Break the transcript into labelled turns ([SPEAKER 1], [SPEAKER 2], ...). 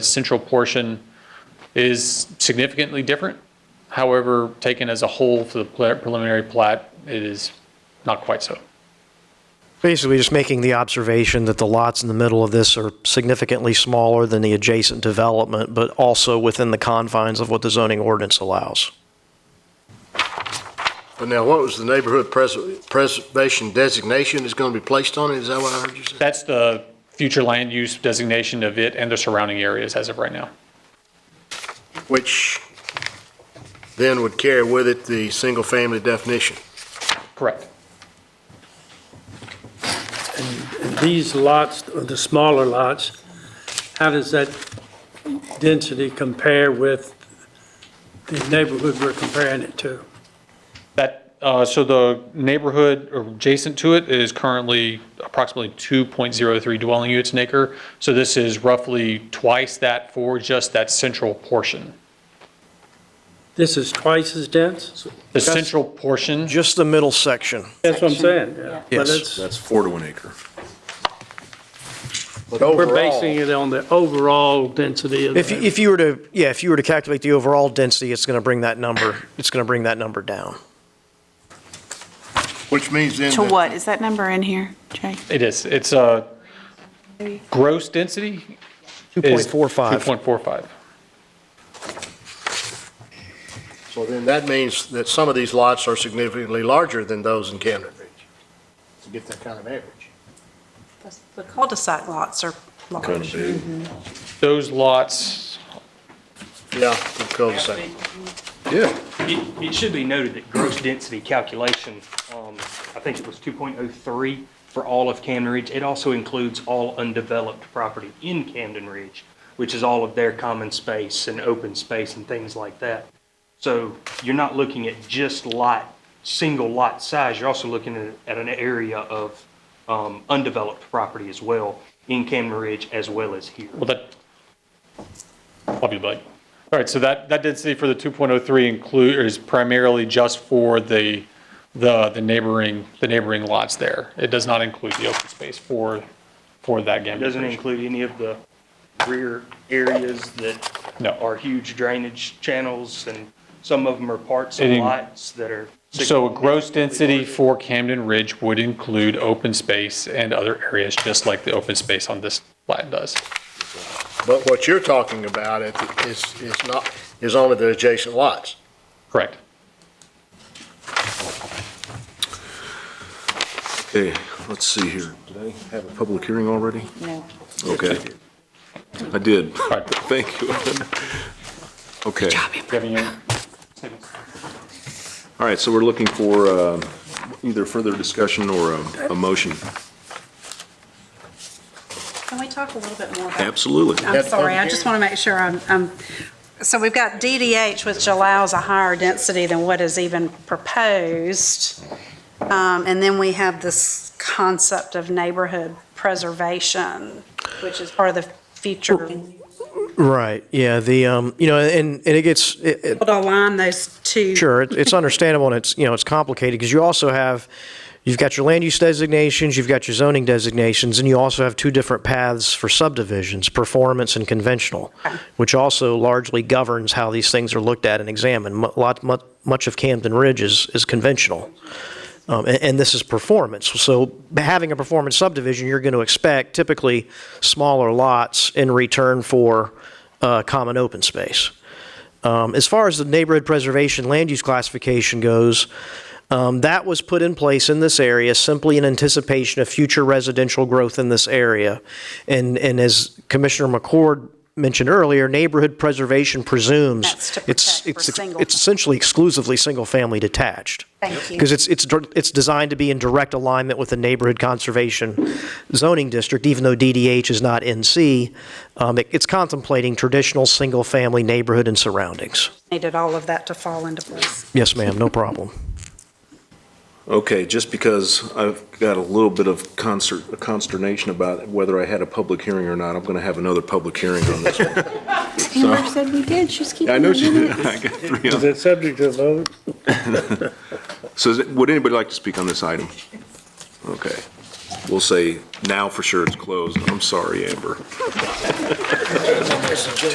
[SPEAKER 1] central portion is significantly different. However, taken as a whole for the pre- preliminary plat, it is not quite so.
[SPEAKER 2] Basically, just making the observation that the lots in the middle of this are significantly smaller than the adjacent development, but also within the confines of what the zoning ordinance allows.
[SPEAKER 3] But now, what was the neighborhood pres- preservation designation that's going to be placed on it? Is that what I heard you say?
[SPEAKER 1] That's the future land use designation of it and the surrounding areas as of right now.
[SPEAKER 3] Which then would carry with it the single-family definition.
[SPEAKER 1] Correct.
[SPEAKER 4] These lots, the smaller lots, how does that density compare with the neighborhood we're comparing it to?
[SPEAKER 1] That, uh, so the neighborhood or adjacent to it is currently approximately 2.03 dwelling units an acre. So this is roughly twice that for just that central portion.
[SPEAKER 4] This is twice as dense?
[SPEAKER 1] The central portion,
[SPEAKER 2] Just the middle section.
[SPEAKER 4] That's what I'm saying, yeah. But
[SPEAKER 2] Yes.
[SPEAKER 4] it's-
[SPEAKER 5] That's four to an acre.
[SPEAKER 3] But
[SPEAKER 4] We're
[SPEAKER 3] overall,
[SPEAKER 4] basing it on the overall density of
[SPEAKER 2] If,
[SPEAKER 4] the,
[SPEAKER 2] if you were to, yeah, if you were to calculate the overall density, it's going to bring that number, it's going to bring that number down.
[SPEAKER 3] which means then.
[SPEAKER 6] To
[SPEAKER 3] that-
[SPEAKER 6] what? Is that number in here, Jay?
[SPEAKER 1] it is, it's a gross density is
[SPEAKER 2] 2.45.
[SPEAKER 1] 2.45.
[SPEAKER 3] So then that means that some of these lots are significantly larger than those in Camden Ridge. To get that kind of average.
[SPEAKER 7] The cul-de-sac lots are
[SPEAKER 5] Kind of
[SPEAKER 7] large.
[SPEAKER 5] big.
[SPEAKER 1] Those lots,
[SPEAKER 3] Yeah, the cul-de-sac.
[SPEAKER 5] Yeah.
[SPEAKER 8] It, it should be noted that gross density calculation, um, I think it was 2.03 for all of Camden Ridge. It also includes all undeveloped property in Camden Ridge, which is all of their common space and open space and things like that. So you're not looking at just lot, single lot size, you're also looking at, at an area of, um, undeveloped property as well in Camden Ridge as well as here.
[SPEAKER 1] well, that, probably like, all right, so that, that density for the 2.03 include, is primarily just for the, the the neighboring, the neighboring lots there. It does not include the open space for, for that
[SPEAKER 8] It
[SPEAKER 1] Gambier
[SPEAKER 8] Doesn't
[SPEAKER 1] Bridge.
[SPEAKER 8] include any of the rear areas that
[SPEAKER 1] No.
[SPEAKER 8] are huge drainage channels, and some of them are parts of
[SPEAKER 1] It in-
[SPEAKER 8] lots that are.
[SPEAKER 1] So a gross density
[SPEAKER 8] significantly larger.
[SPEAKER 1] for Camden Ridge would include open space and other areas, just like the open space on this plat does.
[SPEAKER 3] But what you're talking about it- is, is not, is only the adjacent lots.
[SPEAKER 1] Correct.
[SPEAKER 5] Okay, let's see here. Did I have a public hearing already?
[SPEAKER 6] No.
[SPEAKER 5] Okay. I did.
[SPEAKER 1] right.
[SPEAKER 5] Thank you. Okay.
[SPEAKER 1] Giving you-
[SPEAKER 5] All right, so we're looking for uh, either further discussion or a- a motion.
[SPEAKER 7] Can we talk a little bit more about?
[SPEAKER 5] Absolutely.
[SPEAKER 7] I'm
[SPEAKER 3] That's
[SPEAKER 7] sorry, I
[SPEAKER 3] public
[SPEAKER 7] just
[SPEAKER 3] hearing.
[SPEAKER 7] want to make sure I'm, I'm- so we've got DDH, which allows a higher density than what is even proposed. Um, And then we have this concept of neighborhood preservation, which is part of the future.
[SPEAKER 2] Right, yeah, the, um, you know, and, and it gets, it, it-
[SPEAKER 7] We'll align those two.
[SPEAKER 2] Sure, it- it's understandable and it's, you know, it's complicated because you also have, you've got your land use designations, you've got your zoning designations, and you also have two different paths for subdivisions, performance and conventional, which also largely governs how these things are looked at and examined. Mu- Lot, mu- much of Camden Ridge is, is conventional. Um, and, and this is performance. So having a performance subdivision, you're going to expect typically smaller lots in return for, uh, common open space. Um, As far as the neighborhood preservation land use classification goes, um, that was put in place in this area simply in anticipation of future residential growth in this area. And, and as Commissioner McCord mentioned earlier, neighborhood preservation presumes.
[SPEAKER 7] That's to
[SPEAKER 2] it's-
[SPEAKER 7] protect for
[SPEAKER 2] it's ex-
[SPEAKER 7] single-
[SPEAKER 2] It's essentially exclusively single-family detached.
[SPEAKER 7] Thank you.
[SPEAKER 2] Because it's, it's, dir- it's designed to be in direct alignment with the neighborhood conservation zoning district, even though DDH is not NC. Um, it- It's contemplating traditional, single-family neighborhood and surroundings.
[SPEAKER 7] Needed all of that to fall into place.
[SPEAKER 2] Yes, ma'am, no problem.
[SPEAKER 5] Okay, just because I've got a little bit of concert, consternation about whether I had a public hearing or not, I'm going to have another public hearing on this one.
[SPEAKER 9] Amber said we did, she's keeping
[SPEAKER 5] I know she did.
[SPEAKER 9] the
[SPEAKER 5] I got three
[SPEAKER 4] is
[SPEAKER 5] on.
[SPEAKER 4] it subject to vote?
[SPEAKER 5] So is it- would anybody like to speak on this item? Okay. we'll say, now for sure it's closed. I'm sorry, Amber.